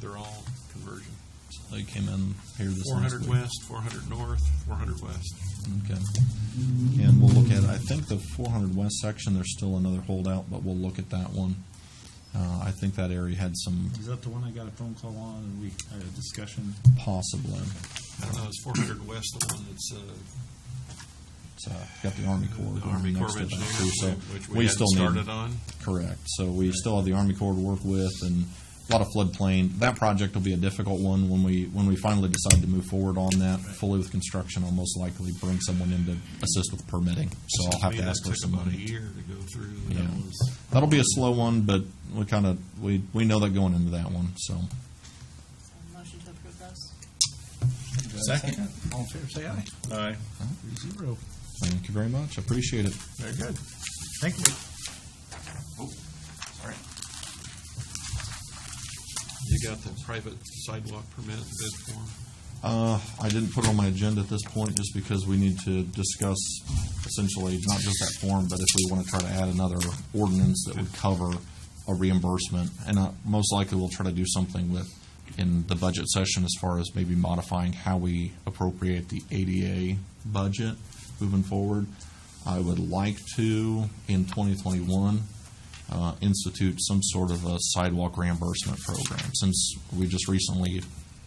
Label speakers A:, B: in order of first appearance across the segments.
A: their own conversion.
B: They came in here this
A: Four
B: last
A: hundred
B: week.
A: west, four hundred north, four hundred west.
B: Okay. And we'll look at, I think the 400 West section, there's still another holdout, but we'll look at that one. Uh, I think that area had some
C: Is that the one I got a phone call on and we had a discussion?
B: possible, uh,
A: I don't know, is four hundred west the one that's, uh,
B: so got the Army Corps.
A: the
B: going
A: Army Corps
B: next
A: of
B: to that,
A: Engineers,
B: too, so
A: which we
B: still
A: hadn't
B: need-
A: started on?
B: Correct. So we still have the Army Corps to work with and a lot of floodplain. That project will be a difficult one when we, when we finally decide to move forward on that fully with construction. I'll most likely bring someone in to assist with permitting. So I'll have
A: Me,
B: to
A: that
B: ask for
A: took
B: some
A: about a
B: money.
A: year to go through.
B: Yeah.
A: That was-
B: That'll be a slow one, but we kind of, we, we know that going into that one, so.
D: Motion to approve those?
C: Second. All in favor, say aye. Aye. Three zero.
B: Thank you very much. Appreciate it.
C: Very good. Thank you.
A: You got the private sidewalk permit bid form?
B: Uh, I didn't put it on my agenda at this point just because we need to discuss essentially not just that form, but if we want to try to add another ordinance that would cover a reimbursement. And uh, most likely we'll try to do something with, in the budget session as far as maybe modifying how we appropriate the ADA budget moving forward. I would like to, in 2021, uh, institute some sort of a sidewalk reimbursement program, since we just recently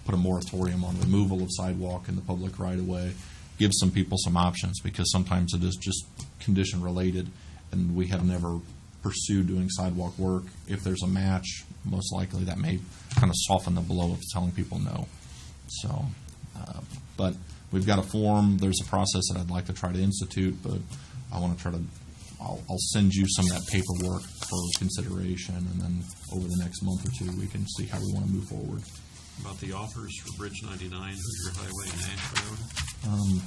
B: put a moratorium on removal of sidewalk in the public right-of-way, give some people some options, because sometimes it is just condition-related, and we have never pursued doing sidewalk work. If there's a match, most likely that may kind of soften the blow of telling people no. So, uh, but we've got a form, there's a process that I'd like to try to institute, but I want to try to, I'll, I'll send you some of that paperwork for consideration, and then over the next month or two, we can see how we want to move forward.
A: About the offers for Bridge ninety-nine, Hoosier Highway and Ash Road?
B: Um,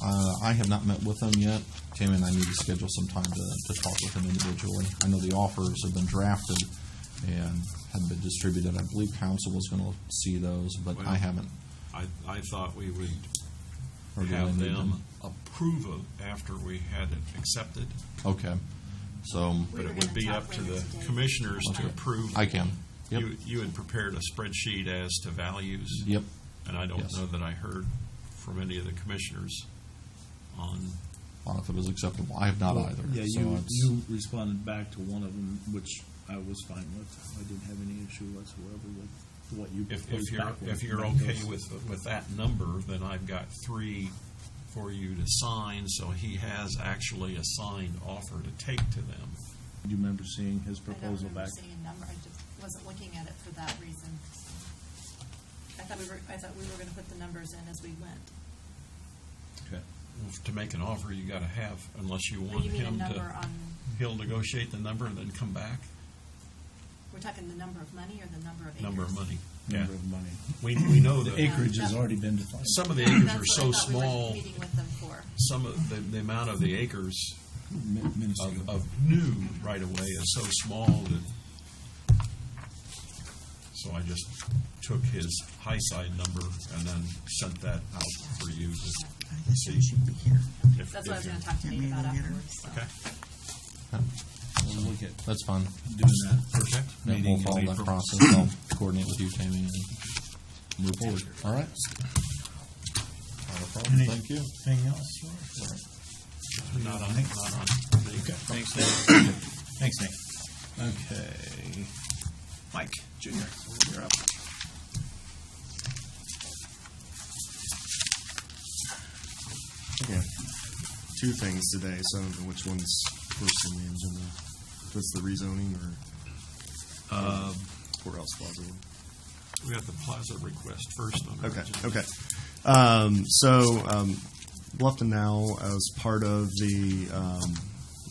B: uh, I have not met with them yet. Tammy and I need to schedule some time to, to talk with them individually. I know the offers have been drafted and had been distributed. I believe council was going to see those, but I
A: Well,
B: haven't.
A: I, I thought we would
B: or do I
A: have
B: need
A: them approve of after we had it accepted,
B: Okay, so
D: We
A: but
D: were
A: it would
D: gonna
A: be
D: talk
A: up to
D: later
A: the
D: today.
A: commissioners to
B: Okay.
A: approve.
B: I can. Yep.
A: You, you had prepared a spreadsheet as to values.
B: Yep.
A: And I don't
B: Yes.
A: know that I heard from any of the commissioners on,
B: Well, if it was acceptable, I have not either.
C: Yeah,
B: so
C: you,
B: it's-
C: you responded back to one of them, which I was fine with. I didn't have any issue whatsoever with what you
A: if, if
C: proposed
A: you're,
C: back.
A: if you're okay with, with that number, then I've got three for you to sign, so he has actually a signed offer to take to them.
C: Do you remember seeing his proposal
D: I
C: back?
D: don't remember seeing a number, I just wasn't looking at it for that reason. I thought we were, I thought we were gonna put the numbers in as we went.
C: Okay.
A: To make an offer, you gotta have, unless you
D: But
A: want
D: you mean a
A: him
D: number
A: to,
D: on,
A: he'll negotiate the number and then come back,
D: we're talking the number of money or the number of acres?
A: number of money.
C: Number of money.
A: We, we know
C: The
A: that,
C: acreage has already been defined.
A: some of the
D: Yeah,
A: acres
D: that's
A: are so
D: what I thought we were
A: small,
D: Meeting with them for.
A: some of, the, the amount of the acres
C: Min- minuscule.
A: of, of new right of way is so small that. So I just took his high side number and then sent that out for you to see. if- if
D: That's what I was
A: you-
D: gonna talk to Nate about afterwards, so.
A: Okay,
C: We'll look at
B: That's fine.
C: doing that
A: okay.
C: first
B: Yeah,
C: meeting
B: We'll
C: in
B: follow that
C: April.
B: process. I'll coordinate with you, Tammy, and move forward. All right? Not a problem.
C: Any-
B: Thank you.
C: Anything else? Roy?
A: Not on, not on.
C: Okay, thanks, Nate. Thanks, Nate. Okay. Mike Junior, you're up.
E: Yeah. Two things today, so I don't know which one's first on the agenda. That's the rezoning or courthouse plaza one.
A: We got the plaza request first on our
E: Okay,
A: agenda.
E: okay. Um, so, um, Bluffton now, as part of the um,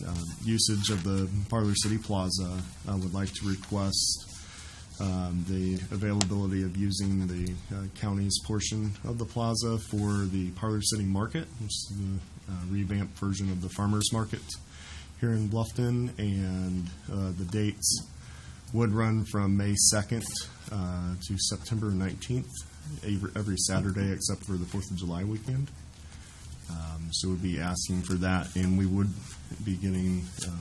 E: uh, usage of the Parlor City Plaza, uh, would like to request um, the availability of using the uh, county's portion of the plaza for the Parlor City Market, which is the uh, revamped version of the farmers market here in Bluffton, and uh, the dates would run from May 2nd uh, to September 19th, every, every Saturday except for the 4th of July weekend. Um, so we'd be asking for that, and we would be getting uh,